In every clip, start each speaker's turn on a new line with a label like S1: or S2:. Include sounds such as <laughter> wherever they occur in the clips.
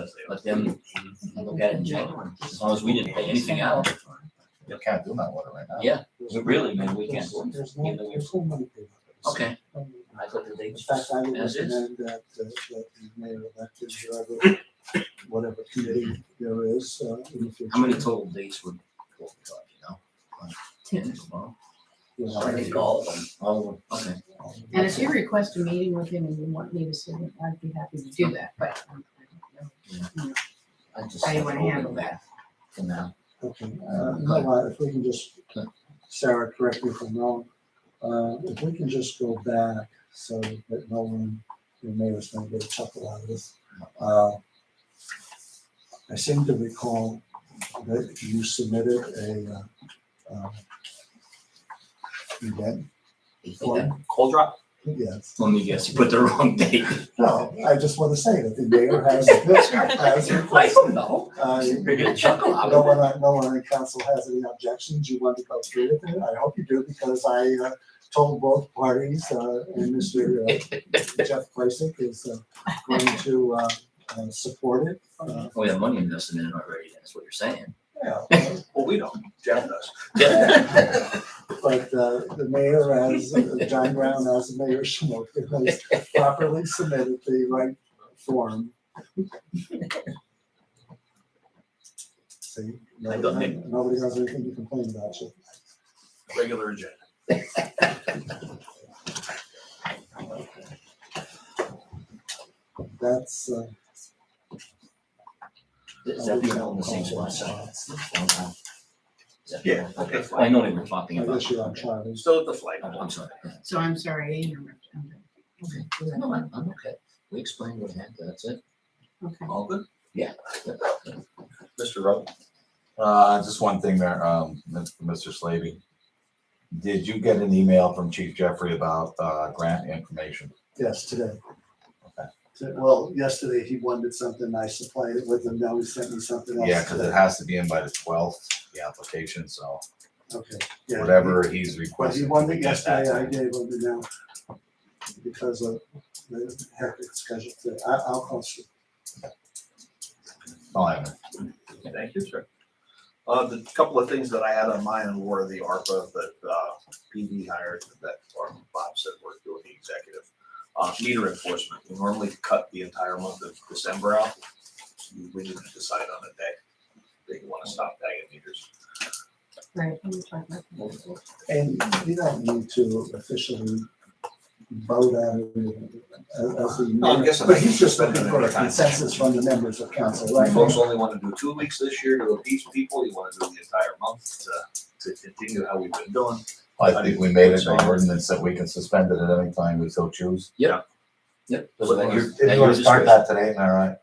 S1: let's let them look at it and check, as long as we didn't pay anything out.
S2: You can't do that water right now.
S1: Yeah, really, man, we can't.
S3: There's- There's no, there's no money payment.
S1: Okay,
S3: Um,
S1: I thought that they
S3: In fact, I would
S1: As is.
S3: recommend that, uh, that the mayor elected whoever, whatever committee there is, uh, in the future.
S1: How many total dates were, you know? Like Ten, well,
S3: you know,
S1: I think all of them,
S2: Well,
S1: Oh, okay.
S4: And if you request a meeting with him and you want me to sit in, I'd be happy to do that, but um, I don't know
S1: I just.
S4: how you wanna handle that.
S1: For now.
S3: Okay, uh, no, I- if we can just, Sarah, correct me if I'm wrong, uh, if we can just go back so that no one, your neighbors don't get a chuckle out of this. Uh, I seem to recall that you submitted a, uh, uh, event form,
S5: Cold drop?
S3: yes.
S1: Let me guess, you put the <laughs> wrong date.
S3: No, I just want to say that the mayor has, has
S1: I
S3: requested,
S1: don't know.
S3: uh,
S1: You're gonna chuckle out
S3: No
S1: of
S3: one, on- no one on council has any objections, you want to go through with it, I hope you do, because I uh, told both parties, uh, and Mr. uh, Jeff Placic is uh, going to uh, uh, support it. Uh,
S1: it. We have Oh, money invested in it already, that's what you're saying.
S3: Yeah,
S5: Well, we don't, Jeff does.
S1: <laughs>
S3: but uh, the mayor as, John Brown as the mayor, Schmoke, has properly submitted the right form. See,
S5: I don't
S3: nobody
S5: think-
S3: nobody has anything to complain about you.
S5: Regular agenda.
S3: That's, uh,
S1: Is that the all in the same spot, so? Is that the-
S5: Yeah, okay,
S1: I know they were talking
S3: I
S1: about.
S3: guess you're on Charlie.
S5: Still at the flag.
S1: Oh, I'm I'm sorry. yeah.
S4: So I'm sorry, I interrupted. I'm
S1: Okay, No, I'm, I'm okay. We explained what happened, that's it.
S4: good. Okay.
S5: All good?
S1: Yeah.
S5: Mr. Rowe?
S2: Uh, just one thing there, um, Mr. Slavy. Did you get an email from Chief Jeffrey about, uh, grant information?
S3: Yes, today.
S2: Okay.
S3: So- Well, yesterday he wanted something, I supplied it with him, now he sent me something else.
S2: Yeah, because it
S3: today.
S2: has to be in by the twelfth, the application, so
S3: Okay, yeah.
S2: whatever he's
S3: But he
S2: requesting.
S3: wanted
S2: we
S3: it
S2: get that
S3: yesterday, I
S2: time.
S3: gave him it now. Because of the hectic schedule today, I, I'll call you.
S2: Oh, I haven't.
S5: Thank you, sir. Uh, the couple of things that I had on mine were the ARPA that, uh, PD hired that or Bob said we're doing the executive. Uh, meter enforcement, we normally cut the entire month of December out. We didn't decide on a day. They want to stop tagging meters.
S4: Right, I'm gonna talk about that.
S3: And you don't need to officially vote on it uh, as the.
S5: No, I'm guessing I
S3: But
S5: can
S3: he's just
S5: spend
S3: looking
S5: it
S3: for a
S5: another time.
S3: consensus from the members of council,
S5: You
S3: right?
S5: folks only want to do two weeks this year to appease people, you want to do the entire month to, to continue how we've been doing.
S2: I think we made it an ordinance that we can suspend it at any time we so choose.
S1: Yep.
S2: So If you want to start that today, all right.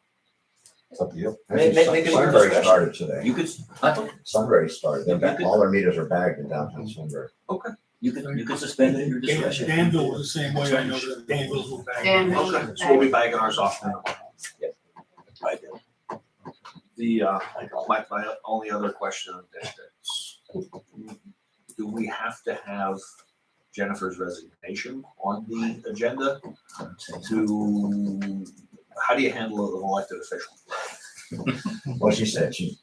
S2: It's up to you.
S5: Make- make- make it your
S6: Sunbury
S5: discretion.
S6: started today.
S1: You could, I thought,
S6: Sunbury started. They're back,
S5: Okay.
S6: all their meters are bagged in downtown Sunbury.
S1: you could, you could suspend it at your discretion.
S7: Danville was the same way, I know that Danville's were back.
S4: Danville.
S5: Okay, so we'll be bagging ours off now. I did. The, uh, my, my only other question is, that- do we have to have Jennifer's resignation on the agenda to, how do you handle an elected official?
S6: Well, she said she,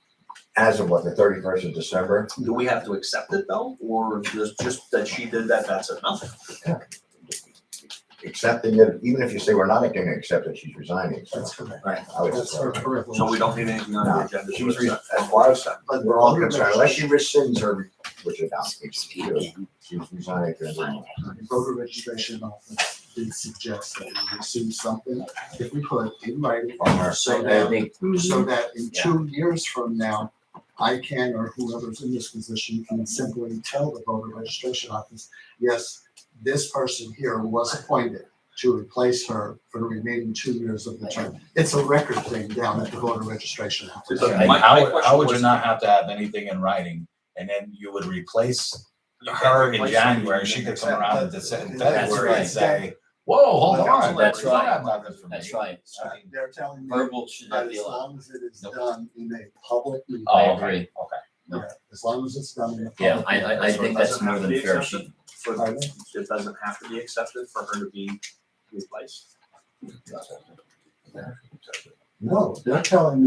S6: as of what, the thirty-first of December?
S5: Do we have to accept it though, or just, just that she did that, that's enough?
S6: Accepting it, even if you say we're not going to accept it, she's resigning. So
S3: That's correct.
S6: I would
S3: That's
S6: just,
S3: her privilege.
S5: So we don't need anything on the
S6: No,
S5: agenda.
S6: she was re-
S5: to accept.
S6: as far as- but we're all concerned, unless she rescinds her, which I doubt she does, she's resigning. to everyone.
S3: voter registration office did suggest that we receive something, if we put in writing,
S6: From her.
S3: so
S1: I
S3: that,
S1: think,
S4: uh,
S3: so that in two years from now, I can, or whoever's in this position, can simply tell the voter registration office, yes, this person here was appointed to replace her for the remaining two years of the term. It's a record thing down at the voter registration office.
S5: So
S2: And
S5: my- my
S2: how,
S5: question
S2: how would you
S5: was-
S2: not have to have anything in writing? And then you would replace
S5: You can't
S2: her in
S5: replace
S2: January,
S5: somebody
S2: she
S5: in
S2: could
S5: the-
S2: come around in Dece- in February
S3: right.
S2: and say, whoa, hold
S3: Well,
S1: that's
S2: on, that's right.
S1: right.
S2: have nothing for me.
S1: that's right,
S3: Uh, They're telling me
S1: verbal should
S3: that
S1: not be
S3: as
S1: allowed.
S3: long as it is
S1: Nope.
S3: done in a public meeting.
S1: I
S2: Oh,
S1: agree, No.
S3: Yeah, as long as it's done in a public.
S1: yeah, I, I, I
S5: So it
S1: think that's
S5: doesn't
S1: more
S5: have to
S1: than
S5: be
S1: fair.
S5: accepted? For-
S3: Pardon?
S5: It doesn't have to be accepted for her to be replaced.
S3: No, they're telling me